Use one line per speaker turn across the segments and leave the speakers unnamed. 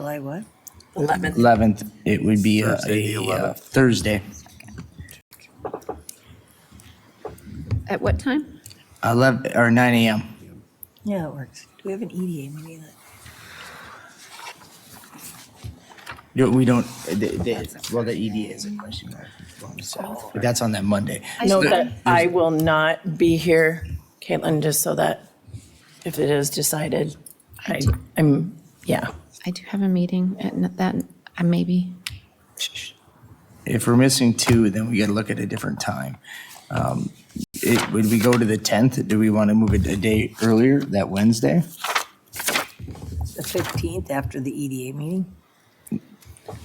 July what?
11th.
11th, it would be a
Thursday, the
a, uh,
11th.
Thursday.
At what time?
11, or 9 AM.
Yeah, it works. Do we have an EDA meeting? that-
No, We don't, the- the- well, the EDA is a question mark. so, but That's on that Monday.
I know that I will not be here, Caitlin, just so that if it is decided, I, I'm, yeah.
I do have a meeting at n- that, uh, maybe.
If we're missing two, then we got to look at a different time. Um, it- Would we go to the 10th? Do we want to move it a day earlier, that Wednesday?
The 15th after the EDA meeting?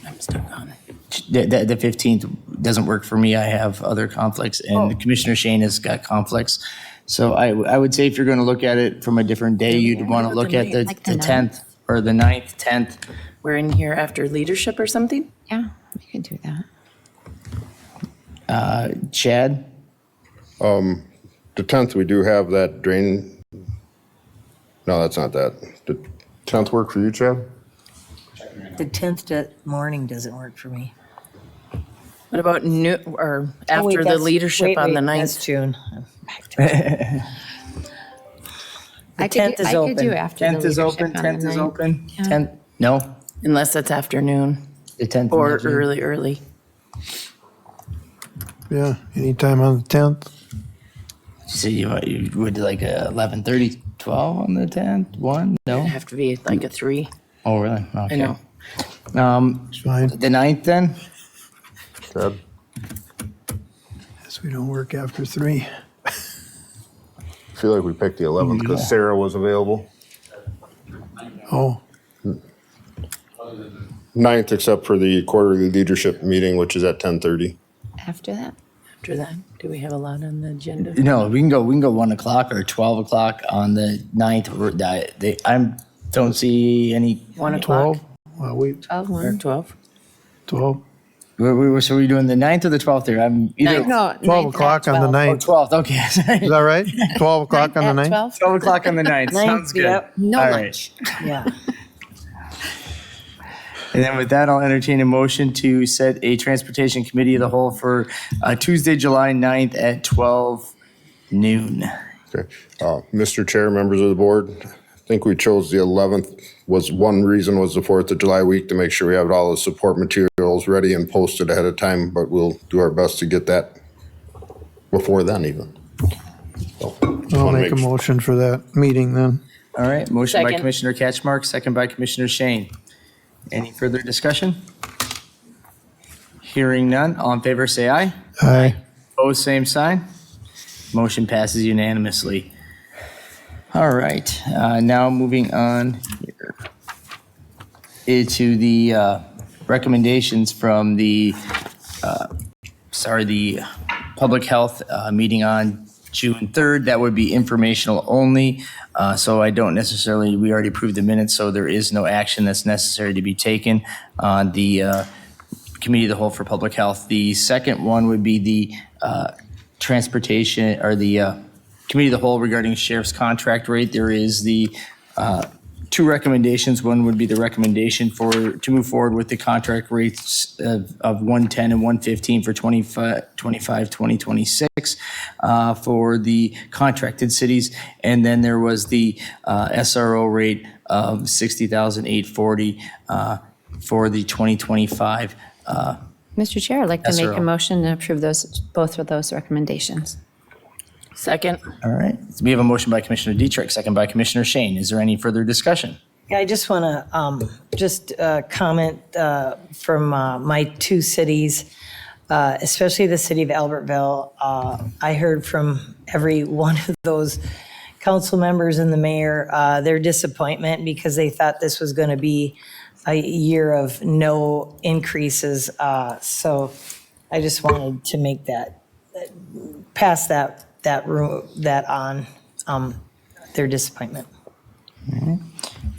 I'm stuck on it.
The, the- the 15th doesn't work for me. I have other conflicts and Commissioner Shane has got conflicts. So I, w- I would say if you're going to look at it from a different day, you'd want to look at the,
Like the
the
ninth.
10th or the 9th, 10th.
We're in here after leadership or something?
Yeah, we can do that.
Chad?
The tenth, we do have that drain. No, that's not that. The tenth work for you, Chad?
The 10th to- morning doesn't work for me.
What about new,
Oh,
or after the leadership on the 9th?
That's June.
I could do-
10th is
I could do
open.
after the
10th is
leadership
open,
on the
10th is
9th.
open.
Yeah.
10th, no,
Unless it's afternoon
the 10th.
or
is not June.
early, early.
Yeah, anytime on the 10th.
So you, you would like uh, 11:30, 12 on the 10th, 1? No?
It'd have to be like a three,
Oh, really?
I
Okay.
know.
Um,
It's fine,
The 9th then?
Chad?
as we don't work after three.
I feel like we picked the eleventh because Sarah was available.
Oh,
Ninth, except for the quarterly leadership meeting, which is at ten thirty.
After that?
After that, do we have a lot on the agenda?
No, we can go, we can go 1 o'clock or 12 o'clock on the 9th. Or the- the- I'm, don't see any,
One o'clock
12? Well, we,
Twelve
or
Oh, one?
12?
12,
we- we- so are we doing the 9th or the 12th here? I'm either,
No.
12 o'clock on the
oh,
9th.
12th, okay.
Is that right? 12 o'clock on the 9th?
12?
12 o'clock on the 9th, sounds good.
yep.
No
All
lunch.
Yeah.
And then with that, I'll entertain a motion to set a transportation committee of the whole for uh, Tuesday, July 9th at 12 noon.
Okay. Uh, Mr. Chair, members of the board, I think we chose the eleventh was one reason was the Fourth of July week to make sure we have all the support materials ready and posted ahead of time, but we'll do our best to get that before then even. So, just
I'll
wanna
make a
sure.
motion for that meeting then.
All right, motion by
Second.
Commissioner Catchmark, second by Commissioner Shane. Any further discussion? Hearing none, all in favor, say aye.
Aye.
Opposed, same sign. Motion passes unanimously. All right, uh, now moving on here into the uh, recommendations from the, uh, sorry, the Public Health uh, meeting on June 3rd. That would be informational only, uh, so I don't necessarily, we already approved the minutes, so there is no action that's necessary to be taken on the uh, Committee of the Whole for Public Health. The second one would be the uh, transportation, or the uh, Committee of the Whole regarding sheriff's contract rate. There is the uh, two recommendations. One would be the recommendation for, to move forward with the contract rates of of 110 and 115 for 25, 25, 2026 uh, for the contracted cities. And then there was the uh, SRO rate of 60,840 uh, for the 2025. uh,
Mr. Chair, I'd like to make a
SRO.
motion to approve those, both of those recommendations.
Second?
All right, we have a motion by Commissioner Dietrich, second by Commissioner Shane. Is there any further discussion?
Yeah, I just want to um, just uh, comment uh, from uh, my two cities, uh, especially the city of Albertville. Uh, I heard from every one of those council members and the mayor uh, their disappointment because they thought this was going to be a year of no increases. Uh, so I just wanted to make that pass that that ru- that on um, their disappointment.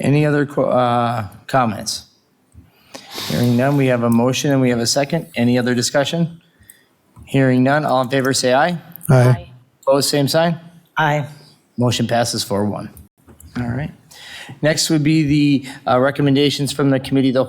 Any other qu- uh, comments? Hearing none, we have a motion and we have a second. Any other discussion? Hearing none, all in favor say aye.
Aye.
Opposed, same sign.
Aye.
Motion passes 4-1. All right. Next would be the uh, recommendations from the committee, of the